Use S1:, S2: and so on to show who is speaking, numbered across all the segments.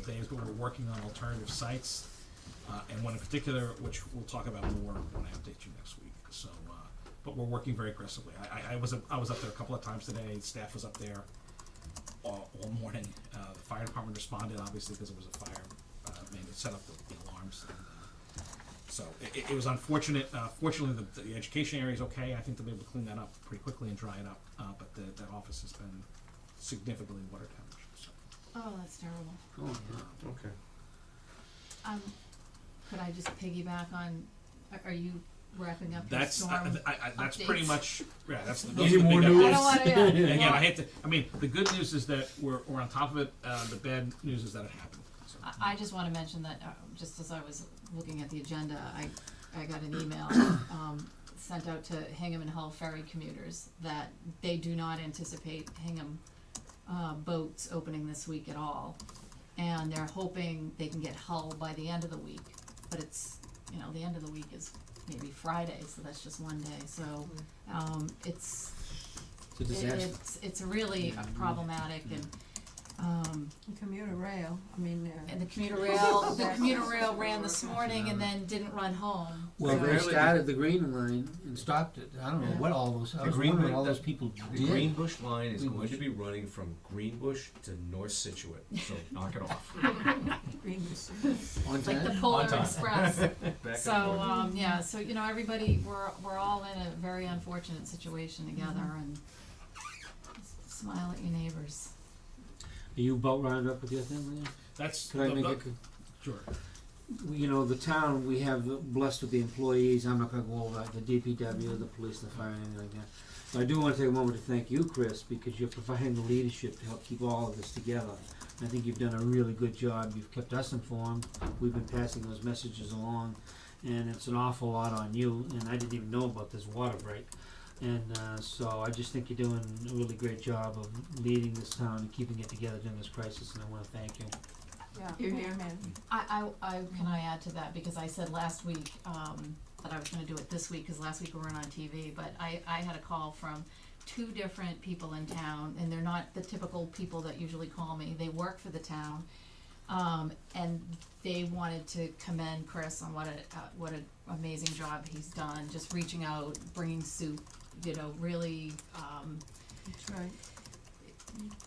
S1: things, but we're working on alternative sites. Uh, and one in particular, which we'll talk about more when I update you next week, so, uh, but we're working very aggressively. I, I, I was, up- I was up there a couple of times today, staff was up there all, all morning. Uh, the fire department responded, obviously, because it was a fire, uh, man, it set up the the alarms and, uh, so it- it, it was unfortunate. Uh, fortunately, the, the education area is okay. I think they'll be able to clean that up pretty quickly and dry it up. Uh, but the, that office has been significantly water damaged. So.
S2: Oh, that's terrible.
S3: Okay.
S2: Um, could I just piggyback on, are, are you wrapping up your
S1: That's
S2: storm?
S1: I, I, I, that's pretty
S2: updates.
S1: much yeah. That's the, those
S3: Any
S1: are the
S3: more
S1: big
S3: news?
S2: I
S1: updates.
S2: don't wanna, yeah.
S1: And again,
S2: well,
S1: I hate to. I mean, the good news is that we're, we're on top of it. Uh, the bad news is that it happened. So,
S2: I, I just wanna mention that, uh, just as I was looking at the agenda, I, I got an email, um, sent out to Hingham and Hull ferry commuters that they do not anticipate Hingham, uh, boats opening this week at all. And they're hoping they can get Hull by the end of the week, but it's, you know, the end of the week is maybe Friday, so that's just one day, so, um, it's,
S4: Mm-hmm. It's a
S2: it-
S4: disaster. Mm-hmm.
S2: it's, it's really problematic and, um,
S5: Commuter rail, I mean, uh,
S2: and the commuter rail, the
S5: Exactly.
S2: commuter rail ran this morning and then didn't run home.
S4: Well,
S5: So-
S4: they
S5: Really?
S4: started the green line and stopped it. I don't know
S2: Yeah.
S4: what all those, I
S3: The
S4: was
S3: green
S4: wondering
S3: line-
S4: all
S3: the-
S4: those people
S3: The
S4: did.
S3: Greenbush line is going
S4: Greenbush.
S3: to be running from Greenbush to North Situate, so knock it off.
S5: green.
S4: On
S2: Like the
S4: time.
S2: Polar
S3: On time.
S2: Express.
S3: Back and
S2: So,
S3: forth.
S2: um, yeah, so, you know, everybody, we're, we're all in a very unfortunate situation together and s- smile at your neighbors.
S4: Are you boat rounded up with your thing, Leon?
S1: that's
S4: Could I
S1: the-
S4: make
S1: the-
S4: a, co-
S1: sure.
S4: you know, the town, we have the- blessed with the employees, I'm not gonna go over that, the DPW, the police, the fire, anything like that. But I do wanna take a moment to thank you, Chris, because you're providing the leadership to help keep all of this together. I think you've done a really good job, you've kept us informed, we've been passing those messages along, and it's an awful lot on you, and I didn't even know about this water break. And, uh, so I just think you're doing a really great job of leading this town and keeping it together during this crisis, and I wanna thank you.
S5: Yeah.
S2: You're here.
S5: man.
S2: I, I, I, can I add to that, because I said last week, um, that I was gonna do it this week, cause last week we weren't on TV, but I, I had a call from two different people in town, and they're not the typical people that usually call me, they work for the town. Um, and they wanted to commend Chris on what a, uh, what an amazing job he's done, just reaching out, bringing soup, you know, really, um,
S5: That's right.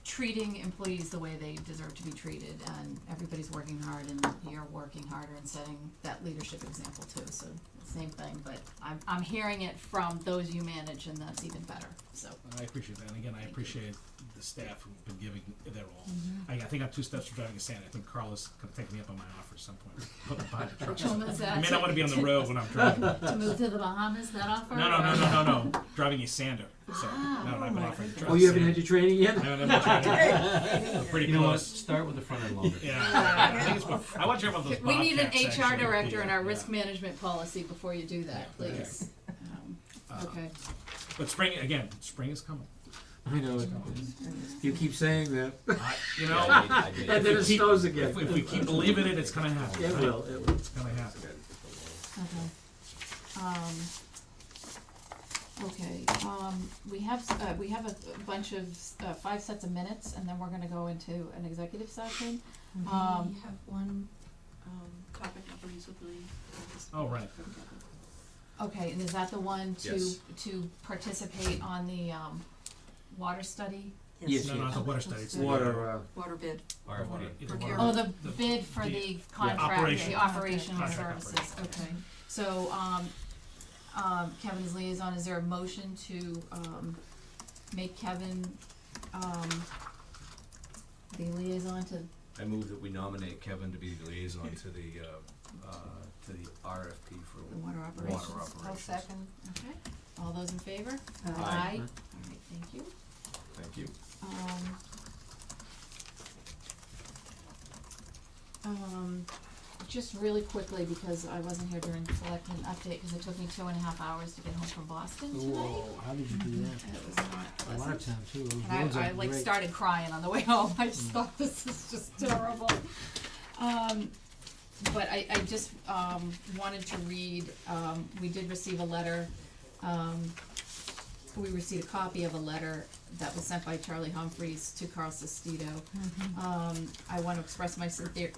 S2: treating employees the way they deserve to be treated and everybody's working hard and you're working harder and setting that leadership example too, so same thing, but I'm I'm hearing it from those you manage and that's even better, so.
S1: And I appreciate that. And again, I
S2: Thank you. Mm-hmm.
S1: appreciate the staff who've been giving their all. I, I think I'm two steps from driving a Santa. I think Carl is going to take me up on my offer at some point. Put me behind the truck. I may not want to be on the road when I'm driving. No,
S2: To move to the Bahamas, that offer?
S1: no, no, no, no, no. Driving a Sander. So,
S2: Ah.
S1: no, I've been offering to drive
S4: Oh,
S1: a
S4: you haven't had
S1: Sander.
S4: your training yet?
S1: I haven't had my training. I'm Pretty
S3: You know what,
S1: close.
S3: start with the front end loader.
S1: Yeah, I think it's about- I want to hear about those
S2: We need an
S1: Bobcats,
S2: HR
S1: actually.
S2: director in our
S1: Yeah. Uh,
S2: risk management policy before you do that,
S1: Yeah, okay.
S2: please. Um,
S1: Uh,
S2: Okay,
S1: But spring, again, spring is coming.
S4: I know it. You keep saying that,
S1: I- You
S3: Yeah,
S1: know,
S3: I did- I
S4: and
S3: did.
S4: then it snows again.
S1: if we- if we keep believing it, it's gonna happen.
S4: It
S1: right?
S4: will, it will.
S1: It's gonna happen.
S2: Okay. Um, okay, um, we have, s- uh, we have a a bunch of, s- uh, five sets of minutes, and then we're gonna go into an executive session. Um,
S6: We have one, um, topic of reasonably. uh,
S1: Oh, right.
S2: okay, and is that the one to,
S3: Yes.
S2: to participate on the, um, water study?
S4: Yes,
S1: No, no,
S4: yes.
S1: it's a water study. It's the-
S4: Water, uh,
S6: Water bid.
S1: the
S3: RFP.
S1: water- it's
S6: Okay.
S1: water-
S2: Oh, the
S1: The-
S2: bid for the
S1: the-
S2: contract,
S1: operation.
S2: the operational
S1: Contract
S2: services,
S1: operation.
S2: okay. So, um, um, Kevin is liaison, is there a motion to, um, make Kevin, um, the liaison to,
S3: I move that we nominate Kevin to be the liaison to the, uh, uh, to the RFP
S2: the
S3: for
S2: water operations?
S3: water operations.
S2: Okay, all those in favor?
S5: Uh,
S4: Mm-hmm.
S3: Aye.
S2: All right, thank you.
S3: Thank you.
S2: Um, um, just really quickly, because I wasn't here during the selectmen update, because it took me two and a half hours to get home from Boston tonight.
S4: whoa, how did you do that?
S2: It was not
S4: A lot
S2: pleasant.
S4: of time too, those
S2: And
S4: roads
S2: I, I
S4: are
S2: like
S4: great.
S2: started crying on the way home, I just thought this is just terrible. Um, but I, I just, um, wanted to read, um, we did receive a letter, um, we received a copy of a letter that was sent by Charlie Humphreys to Carl Sestito. Um, I wanna express my sincere,